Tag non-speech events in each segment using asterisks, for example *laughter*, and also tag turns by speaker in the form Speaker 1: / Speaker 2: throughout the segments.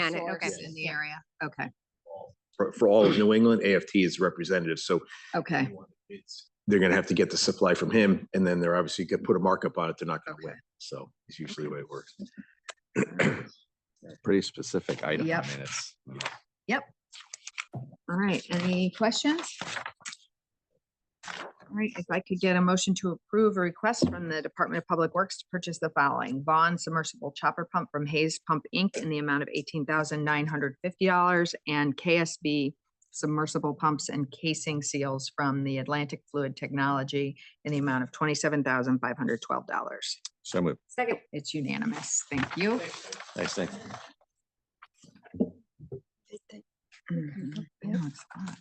Speaker 1: And it-
Speaker 2: source
Speaker 1: okay.
Speaker 2: in the area.
Speaker 1: Okay,
Speaker 3: for, for all of New England, AFT is representative, so
Speaker 1: okay,
Speaker 3: it's, they're gonna have to get the supply from him, and then they're obviously gonna put a markup on it, they're not gonna win, so it's usually the way it works.
Speaker 4: *clears throat* pretty specific item. I
Speaker 1: Yep.
Speaker 4: mean, it's.
Speaker 1: all right. Any questions? All right, if I could get a motion to approve a request from the Department of Public Works to purchase the following. Vaughn submersible chopper pump from Hayes Pump Inc. in the amount of eighteen thousand nine hundred fifty dollars and KSB submersible pumps and casing seals from the Atlantic Fluid Technology in the amount of twenty-seven thousand five hundred twelve dollars.
Speaker 4: So moved.
Speaker 1: Second. It's unanimous. Thank you.
Speaker 4: Nice thing.
Speaker 1: *clears throat* Mhm.
Speaker 5: Yeah.
Speaker 1: No, it's odd.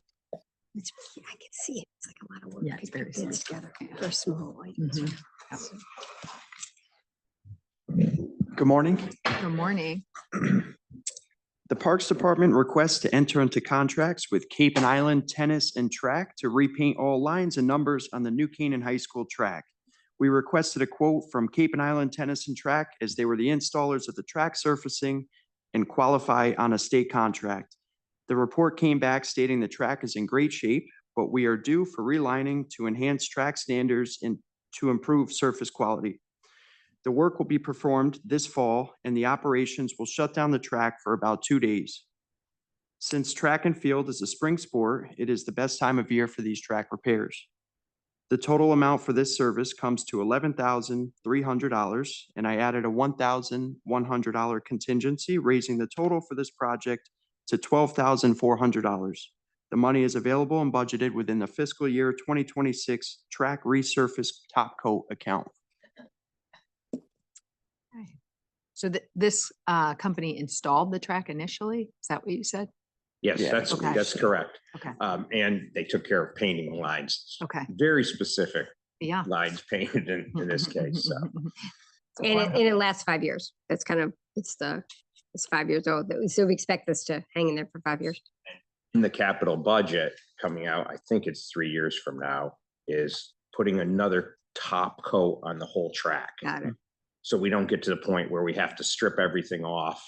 Speaker 5: It's, I can see it. It's like a lot of work.
Speaker 1: Yeah, it's
Speaker 5: to put
Speaker 1: very
Speaker 5: bids Together for small items.
Speaker 1: Mhm.
Speaker 6: Good morning.
Speaker 1: Good morning.
Speaker 6: The Parks Department requests to enter into contracts with Cape and Island Tennis and Track to repaint all lines and numbers on the New Canaan High School track. We requested a quote from Cape and Island Tennis and Track as they were the installers of the track surfacing and qualify on a state contract. The report came back stating the track is in great shape, but we are due for relining to enhance track standards and to improve surface quality. The work will be performed this fall and the operations will shut down the track for about two days. Since track and field is a spring sport, it is the best time of year for these track repairs. The total amount for this service comes to eleven thousand three hundred dollars, and I added a one thousand one hundred dollar contingency, raising the total for this project to twelve thousand four hundred dollars. The money is available and budgeted within the fiscal year twenty twenty-six track resurface top coat account.
Speaker 1: Okay. So th- this uh, company installed the track initially? Is that what you said?
Speaker 3: Yes,
Speaker 6: Yeah.
Speaker 3: that's,
Speaker 1: Okay.
Speaker 3: that's correct.
Speaker 1: Okay.
Speaker 3: Um, and they took care of painting lines,
Speaker 1: Okay,
Speaker 3: very specific
Speaker 1: yeah.
Speaker 3: lines *laughs* painted in, in this
Speaker 1: *laughs*
Speaker 3: case, so.
Speaker 5: And it, and it lasts five years. That's kind of, it's the, it's five years old. that we- So we expect this to hang in there for five years.
Speaker 3: in the capital budget coming out, I think it's three years from now, is putting another top coat on the whole track.
Speaker 5: Got it.
Speaker 3: So we don't get to the point where we have to strip everything off.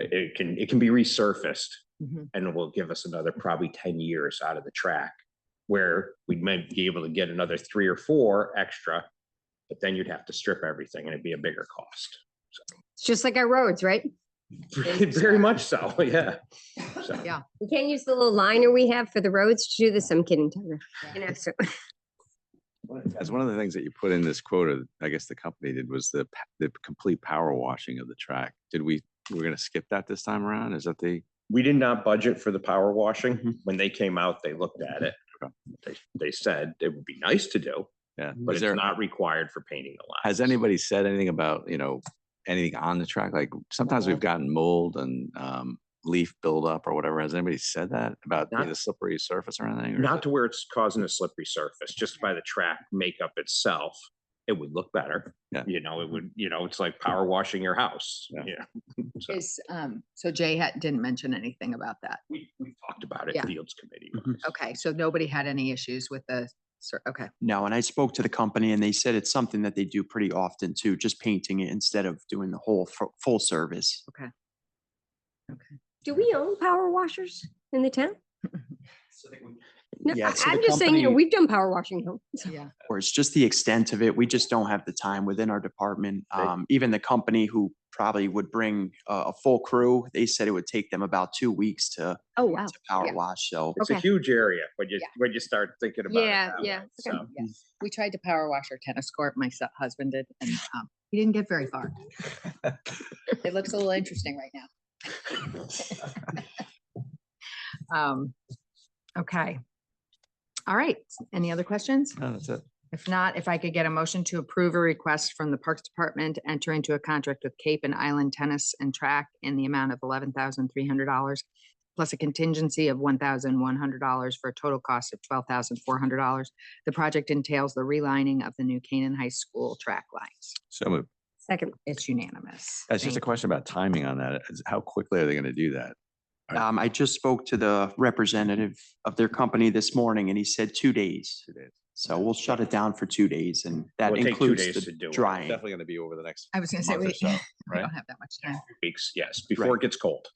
Speaker 3: It- It can, it can be resurfaced
Speaker 1: Mhm.
Speaker 3: and it will give us another probably ten years out of the track. Where we might be able to get another three or four extra, but then you'd have to strip everything and it'd be a bigger cost. *laughs*
Speaker 5: It's just like our roads, right?
Speaker 3: Very much so, yeah. So,
Speaker 1: Yeah.
Speaker 5: We can't use the little liner we have for the roads to do this. I'm kidding, Tyler. You know, so
Speaker 4: As one of the things that you put in this quota, I guess the company did was the, pa- the complete power washing of the track. Did we, we're gonna skip that this time around? Is that the?
Speaker 3: We did not budget for the power washing.
Speaker 4: Mhm.
Speaker 3: When they came out, they looked at it.
Speaker 4: Okay.
Speaker 3: They, they said it would be nice to do,
Speaker 4: Yeah.
Speaker 3: but
Speaker 4: Is
Speaker 3: it's
Speaker 4: there,
Speaker 3: not required for painting the lines.
Speaker 4: has anybody said anything about, you know, anything on the track? Like sometimes we've gotten mold and, um, leaf buildup or whatever. Has anybody said that about
Speaker 3: Not-
Speaker 4: the slippery surface or anything? or is
Speaker 3: Not
Speaker 4: it-
Speaker 3: to where it's causing a slippery surface, just by the track makeup itself, it would look better.
Speaker 4: Yeah. Mm-hmm.
Speaker 3: You know, it would, you know, it's like power washing your house.
Speaker 4: Yeah.
Speaker 3: Yeah. *laughs* So
Speaker 1: Is, um, so Jay had, didn't mention anything about that.
Speaker 3: we, we talked about it,
Speaker 1: Yeah.
Speaker 3: Fields Committee.
Speaker 6: Mhm.
Speaker 1: Okay, so nobody had any issues with the, cer- okay,
Speaker 6: No, and I spoke to the company and they said it's something that they do pretty often too, just painting it instead of doing the whole fu- full service.
Speaker 5: do we own power washers in the town? No,
Speaker 6: Yeah,
Speaker 5: I-
Speaker 6: so the
Speaker 5: I'm just saying, you know,
Speaker 6: company-
Speaker 5: we've done power washing at home. so-
Speaker 1: yeah.
Speaker 6: Or it's just the extent of it. We just don't have the time within our department.
Speaker 3: Right.
Speaker 6: Um, even the company who probably would bring a, a full crew, they said it would take them about two weeks to,
Speaker 5: Oh, wow.
Speaker 6: to power
Speaker 1: Yeah.
Speaker 6: wash. So
Speaker 3: It's a
Speaker 5: Okay.
Speaker 3: huge area when you,
Speaker 1: Yeah.
Speaker 3: when you start thinking about it.
Speaker 5: Yeah,
Speaker 3: that way,
Speaker 5: yeah, okay.
Speaker 3: So,
Speaker 1: Yeah. We tried to power wash our tennis court, my su- husband did, and, um, he didn't get very far. It looks a little interesting right now. Um, okay. All right, any other questions?
Speaker 4: No, that's it.
Speaker 1: If not, if I could get a motion to approve a request from the Parks Department, to enter into a contract with Cape and Island Tennis and Track in the amount of eleven thousand three hundred dollars plus a contingency of one thousand one hundred dollars for a total cost of twelve thousand four hundred dollars. The project entails the relining of the new Canaan High School track lines.
Speaker 4: So moved.
Speaker 5: Second,
Speaker 1: It's unanimous.
Speaker 4: That's just a
Speaker 1: Thank-
Speaker 4: question about timing on that. is How quickly are they gonna do that? Right.
Speaker 6: um, I just spoke to the representative of their company this morning and he said two days.
Speaker 4: Two days.
Speaker 6: So we'll shut it down for two days and that
Speaker 3: Well, it'll take two
Speaker 6: includes
Speaker 3: days to do
Speaker 6: the
Speaker 3: it.
Speaker 6: drying.
Speaker 4: Definitely gonna be over the next
Speaker 1: I was gonna say,
Speaker 4: month
Speaker 1: *laughs*
Speaker 4: or
Speaker 1: we
Speaker 4: so,
Speaker 1: we
Speaker 4: right?
Speaker 1: don't have that much time.
Speaker 3: Weeks, yes, before
Speaker 6: Right.
Speaker 3: it gets cold.